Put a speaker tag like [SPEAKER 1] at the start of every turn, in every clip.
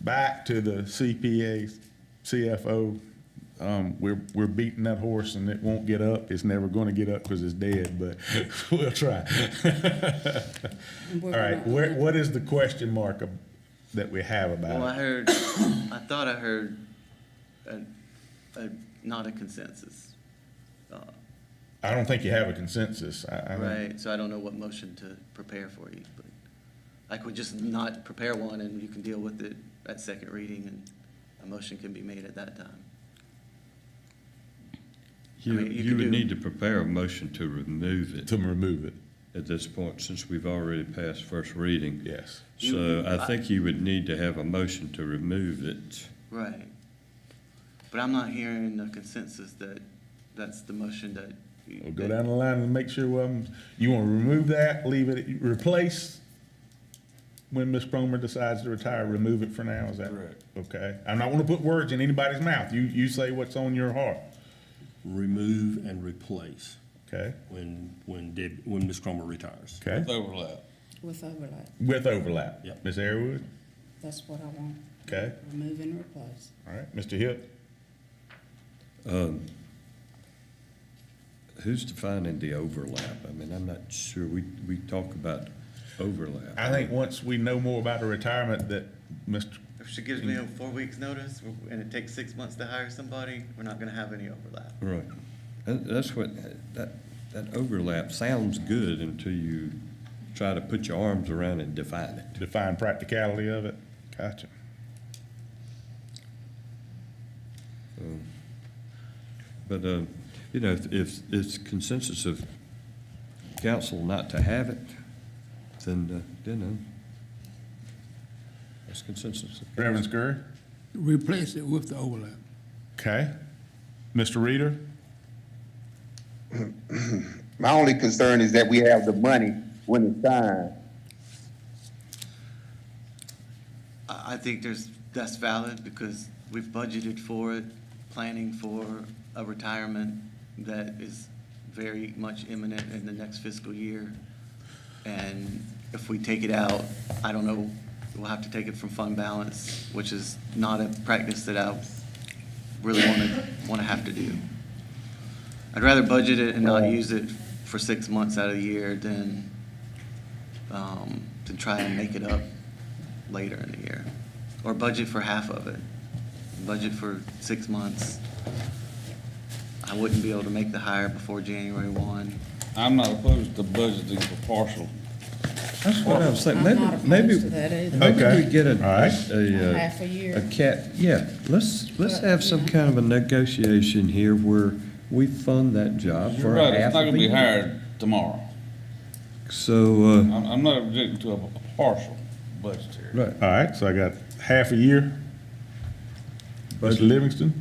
[SPEAKER 1] back to the CPA, CFO, um, we're, we're beating that horse and it won't get up. It's never gonna get up because it's dead, but we'll try.
[SPEAKER 2] And we're
[SPEAKER 1] All right,
[SPEAKER 2] gonna-
[SPEAKER 1] where, what is the question mark ab- that we have
[SPEAKER 3] Well, I
[SPEAKER 1] about it?
[SPEAKER 3] heard, I thought I heard a, a, not a consensus. uh,
[SPEAKER 1] I don't think you have a consensus. I, I don't,
[SPEAKER 3] Right, so I don't know what motion to prepare for you, but I could just not prepare one and you can deal with it at second reading and a motion can be made at that time.
[SPEAKER 4] You,
[SPEAKER 3] mean, you
[SPEAKER 4] you
[SPEAKER 3] could do-
[SPEAKER 4] would need to prepare a motion to remove it
[SPEAKER 1] to remove it,
[SPEAKER 4] at this point, since we've already passed first reading.
[SPEAKER 1] yes.
[SPEAKER 4] So I think you would need to have a motion to remove it.
[SPEAKER 3] Right. But I'm not hearing a consensus that that's the motion that. you-
[SPEAKER 1] We'll go down the line and make sure, um, you wanna remove that, leave it, replace when Ms. Cromer decides to retire, remove it for now, is that?
[SPEAKER 5] Correct.
[SPEAKER 1] Okay, I'm not gonna put words in anybody's mouth. You, you say what's on your heart,
[SPEAKER 5] remove and replace
[SPEAKER 1] okay?
[SPEAKER 5] when, when Deb, when Ms. Cromer retires.
[SPEAKER 1] Okay,
[SPEAKER 5] Overlap.
[SPEAKER 2] With overlay,
[SPEAKER 1] with overlap.
[SPEAKER 5] Yep.
[SPEAKER 1] Ms. Airwood,
[SPEAKER 2] that's what I want,
[SPEAKER 1] okay,
[SPEAKER 2] remove and replace.
[SPEAKER 1] all right, Mr. Hip,
[SPEAKER 4] Who's defining the overlap? I mean, I'm not sure. We, we talk about overlap.
[SPEAKER 1] I think once we know more about the retirement that Mr.,
[SPEAKER 3] If she gives me a four weeks notice and it takes six months to hire somebody, we're not gonna have any overlap.
[SPEAKER 4] Right. That, that's what, that, that overlap sounds good until you try to put your arms around it and define it.
[SPEAKER 1] define practicality of it, gotcha.
[SPEAKER 4] But, uh, you know, if- if it's consensus of council not to have it, then, uh, then, uh, that's consensus.
[SPEAKER 1] Reverend Scurry,
[SPEAKER 6] replace it with the overlap.
[SPEAKER 1] okay? Mr. Reader,
[SPEAKER 7] My only concern is that we have the money when it's signed.
[SPEAKER 3] I, I think there's, that's valid because we've budgeted for it, planning for a retirement that is very much imminent in the next fiscal year. And if we take it out, I don't know, we'll have to take it from fund balance, which is not a practice that I really want to, want to have to do. I'd rather budget it and not use it for six months out of the year than, um, to try and make it up later in the year. Or budget for half of it. Budget for six months. I wouldn't be able to make the hire before January one.
[SPEAKER 8] I'm not opposed to budgeting for partial.
[SPEAKER 4] That's what I was saying.
[SPEAKER 2] I'm
[SPEAKER 4] Maybe,
[SPEAKER 2] not opposed
[SPEAKER 4] maybe,
[SPEAKER 2] to that either.
[SPEAKER 4] maybe we get a,
[SPEAKER 1] Okay. All right.
[SPEAKER 4] a, uh,
[SPEAKER 2] Half a year.
[SPEAKER 4] A cap, yeah, let's, let's
[SPEAKER 2] But,
[SPEAKER 4] have some
[SPEAKER 2] yeah.
[SPEAKER 4] kind of a negotiation here where we fund that job
[SPEAKER 8] You're
[SPEAKER 4] for
[SPEAKER 8] right,
[SPEAKER 4] half
[SPEAKER 8] it's not
[SPEAKER 4] of
[SPEAKER 8] gonna
[SPEAKER 4] a
[SPEAKER 8] be
[SPEAKER 4] year.
[SPEAKER 8] hired tomorrow.
[SPEAKER 4] So,
[SPEAKER 8] I'm, I'm not objecting to a a partial budget here.
[SPEAKER 4] uh, right,
[SPEAKER 1] all right, so I got half a year. Mr. Livingston,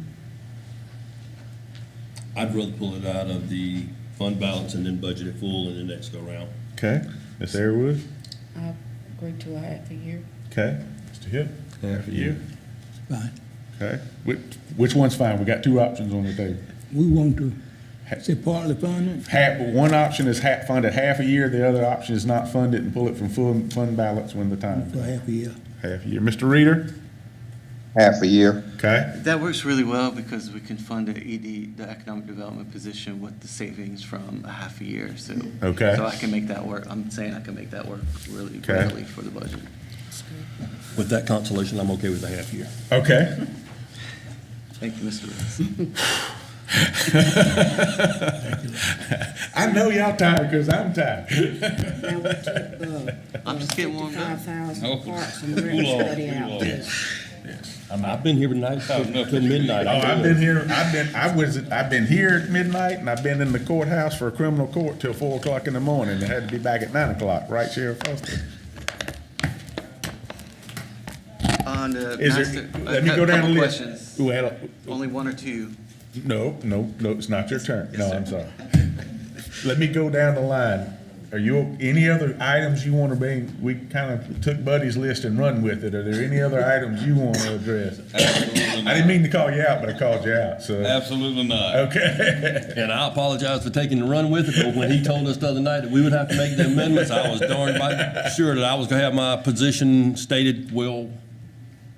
[SPEAKER 5] I'd rather pull it out of the fund balance and then budget it full in the next go round.
[SPEAKER 1] okay? Ms. Airwood,
[SPEAKER 2] I agree to a half a year.
[SPEAKER 1] okay? Mr. Hip?
[SPEAKER 4] half a year.
[SPEAKER 6] Fine.
[SPEAKER 1] Okay, which, which one's fine? We got two options on the table.
[SPEAKER 6] We want to say partly funded.
[SPEAKER 1] Half, one option is half, funded half a year, the other option is not funded and pull it from full fund balance when the time,
[SPEAKER 6] for half a year.
[SPEAKER 1] half a year. Mr. Reader?
[SPEAKER 7] Half a year.
[SPEAKER 1] Okay,
[SPEAKER 3] That works really well because we can fund the ED, the economic development position with the savings from a half a year, so.
[SPEAKER 1] Okay.
[SPEAKER 3] So I can make that work. I'm saying I can make that work really
[SPEAKER 1] Okay.
[SPEAKER 3] readily for the budget.
[SPEAKER 5] With that consolation, I'm okay with a half year.
[SPEAKER 1] okay.
[SPEAKER 3] Thank you, Mr. Lewis.
[SPEAKER 1] I know y'all tired, cause I'm tired.
[SPEAKER 2] Now, we took, uh,
[SPEAKER 3] I'm just getting warmed up.
[SPEAKER 2] Fifty-five thousand
[SPEAKER 8] Oh.
[SPEAKER 2] parts and we're
[SPEAKER 8] Cool off,
[SPEAKER 2] studying
[SPEAKER 8] cool
[SPEAKER 2] out
[SPEAKER 8] off.
[SPEAKER 2] there.
[SPEAKER 5] I mean, I've been here tonight till till midnight.
[SPEAKER 1] Oh,
[SPEAKER 5] I
[SPEAKER 1] I've
[SPEAKER 5] know.
[SPEAKER 1] been here, I've been, I was, I've been here at midnight and I've been in the courthouse for a criminal court till four o'clock in the morning. I had to be back at nine o'clock, right, Sheriff Foster?
[SPEAKER 3] On the
[SPEAKER 1] Is
[SPEAKER 3] master,
[SPEAKER 1] there,
[SPEAKER 3] a
[SPEAKER 1] let me go
[SPEAKER 3] cou-
[SPEAKER 1] down the
[SPEAKER 3] couple
[SPEAKER 1] list.
[SPEAKER 3] questions,
[SPEAKER 1] Well,
[SPEAKER 3] only one or two.
[SPEAKER 1] No, no, no, it's not your turn. No, I'm sorry. Let me go down the line. Are you, any other items you want to bring? We kind of took Buddy's list and run with it. Are there any other items you want to address?
[SPEAKER 8] Absolutely
[SPEAKER 1] I didn't
[SPEAKER 8] not.
[SPEAKER 1] mean to call you out, but I called you out, so,
[SPEAKER 8] Absolutely not.
[SPEAKER 1] okay.
[SPEAKER 5] And I apologize for taking the run with it, but when he told us the other night that we would have to make the amendments, I was darned by sure that I was gonna have my position stated well